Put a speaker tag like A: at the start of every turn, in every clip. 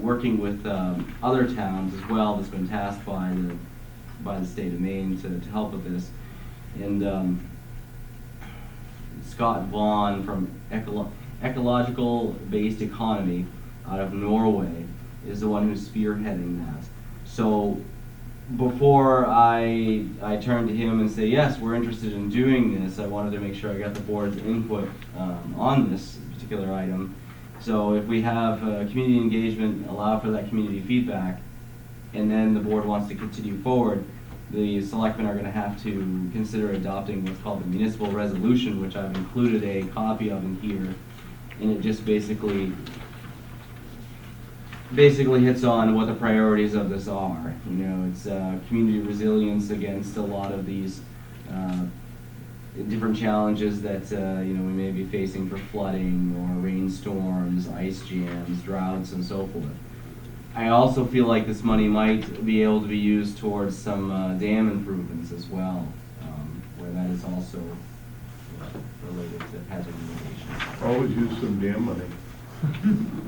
A: working with um, other towns as well that's been tasked by the, by the state of Maine to, to help with this. And um, Scott Vaughn from Ecolo- Ecological Based Economy out of Norway is the one who's spearheading that. So before I, I turned to him and say, yes, we're interested in doing this, I wanted to make sure I got the board's input um, on this particular item. So if we have uh, community engagement, allow for that community feedback, and then the board wants to continue forward, the selectmen are gonna have to consider adopting what's called the municipal resolution, which I've included a copy of in here. And it just basically basically hits on what the priorities of this are. You know, it's uh, community resilience against a lot of these uh, different challenges that uh, you know we may be facing for flooding or rainstorms, ice jams, droughts, and so forth. I also feel like this money might be able to be used towards some uh, dam improvements as well, um, where that is also uh, related to hazard mitigation.
B: Always use some damn money.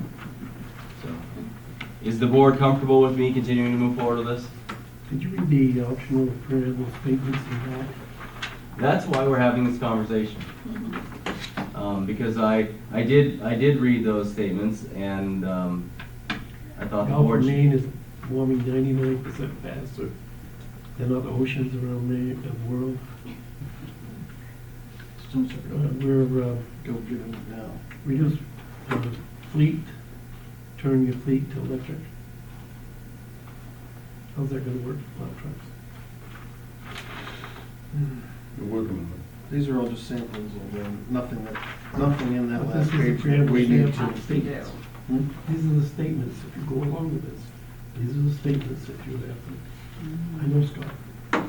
A: So, is the board comfortable with me continuing to move forward with this?
C: Did you read the optional printable statements in that?
A: That's why we're having this conversation. Um, because I, I did, I did read those statements and, um, I thought Uh, the
C: Gulf
A: board.
C: of
A: should-
C: Maine is warming ninety-nine percent faster than other oceans around Maine, the world. Uh, We're, uh,
D: Go get it now.
C: reduce uh, fleet, turn your fleet to electric. How's that gonna work for plow trucks?
B: You're working on it.
D: Hmm. These are all just samples of them, nothing that, nothing in that
C: But
D: last
C: this is a
D: page that
C: preamble
D: we need
C: sample.
D: to.
E: We do.
D: Hmm?
C: These are the statements, if you go along with this, these are the statements that you would have to, I know Scott.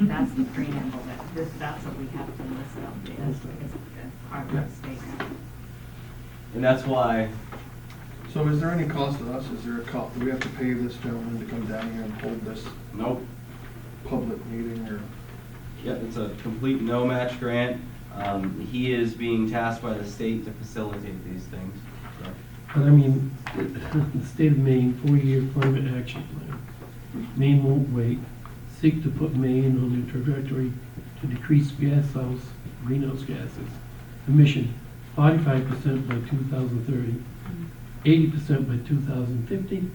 E: That's the preamble, that, this, that's what we have to list up, is, is our
C: Yeah.
E: statement.
A: And that's why,
D: So is there any cost to us? Is there a cost? Do we have to pay this gentleman to come down here and hold this
A: nope,
D: public meeting or?
A: yeah, it's a complete no match grant. Um, he is being tasked by the state to facilitate these things, so.
C: But I mean, the state of Maine, four-year climate action plan. Maine won't wait, seek to put Maine on a trajectory to decrease gas house, greenhouse gases emission forty-five percent by 2030, 80 percent by two thousand fifty.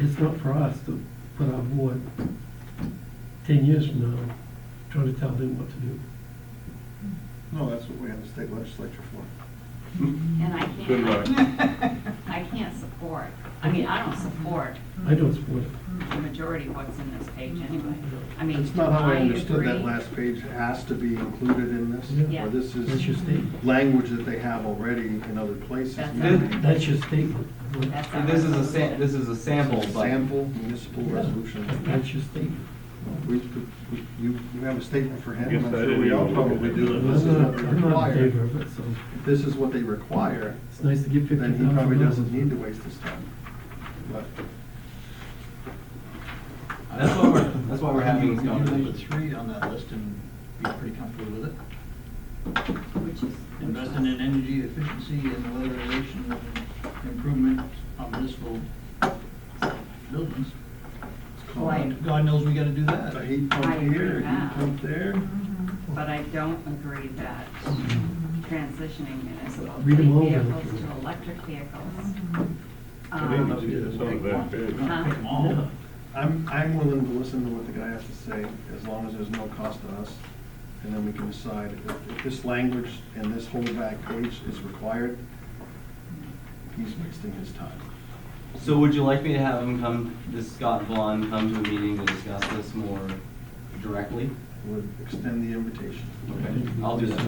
C: It's not for us to put our board ten years from now, trying to tell them what to do.
D: No, that's what we have the state legislature for.
E: And I
B: Good
E: can't, I can't support, I mean, I don't support
C: I don't support it.
E: the majority of what's in this page anyway. I mean,
D: That's
E: do
D: not how I
E: I
D: understood that
E: agree?
D: last page has to be included in
C: Yeah.
D: this,
E: Yeah.
D: or this
C: That's your
D: is
C: statement.
D: language that they have already in other places.
E: That's
A: Did-
C: That's your statement.
E: That's our
A: And this is a sa-
E: resolution.
A: this is a sample, but.
D: Sample municipal resolution.
C: That's your statement.
D: We, we- you, you have a statement for him,
B: Yes,
D: I'm
B: I
D: sure
B: didn't
D: we all
B: even look at
D: probably
B: it.
C: I'm
D: do, if this is what
C: not,
D: they
C: I'm not in favor
D: require,
C: of it, so
D: if this is what they require,
C: it's nice to get fifty
D: then
C: thousand.
D: he probably doesn't need to waste his time. But
A: That's why we're, that's why we're having this
F: Could
A: conversation.
F: you leave a three on that list and be pretty comfortable with it?
E: Which is.
F: Investing in energy efficiency and weatherization and improvement on municipal buildings.
D: it's
E: Well, I-
D: called
F: God knows we gotta do that.
D: a heat
E: I
D: pump
E: agree
D: here, a
E: with
D: heat
E: that.
D: pump there.
E: But I don't agree that transitioning municipal
C: Read 'em
E: fleet
C: over.
E: vehicles to electric vehicles.
B: I didn't
E: um,
B: see it. It's not that big.
F: Pick 'em all up.
D: I'm, I'm willing to listen to what the guy has to say, as long as there's no cost to us, and then we can decide if, if this language and this whole back page is required, he's wasting his time.
A: So would you like me to have him come, this Scott Vaughn come to a meeting to discuss this more directly?
D: Would extend the invitation.
A: Okay, I'll do that.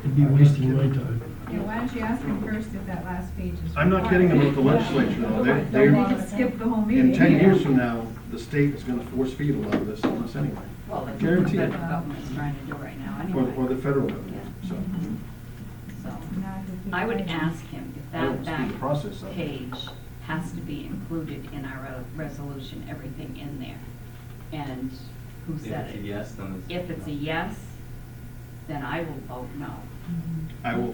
C: It'd be wasting my time.
G: Yeah, why don't you ask him first if that last page is.
D: I'm not kidding about the legislature, though. They-
G: Don't
D: they're-
G: make it skip the whole meeting.
D: In ten years from now, the state is gonna force feed a lot of this on us anyway,
E: Well, that's what the
D: Guaranteed.
E: federal government's trying to do right now
D: or, or
E: anyway,
D: the federal government, so.
E: so.
G: Now I can keep
E: I would
G: going.
E: ask him if
D: I don't
E: that
D: see
E: back
D: the process of it.
E: page has to be included in our ro- resolution, everything in there, and who
A: If
E: said
A: it's a
E: it.
A: yes, then it's.
E: If it's a
A: no.
E: yes, then I will vote no.
G: Mm-hmm.
D: I will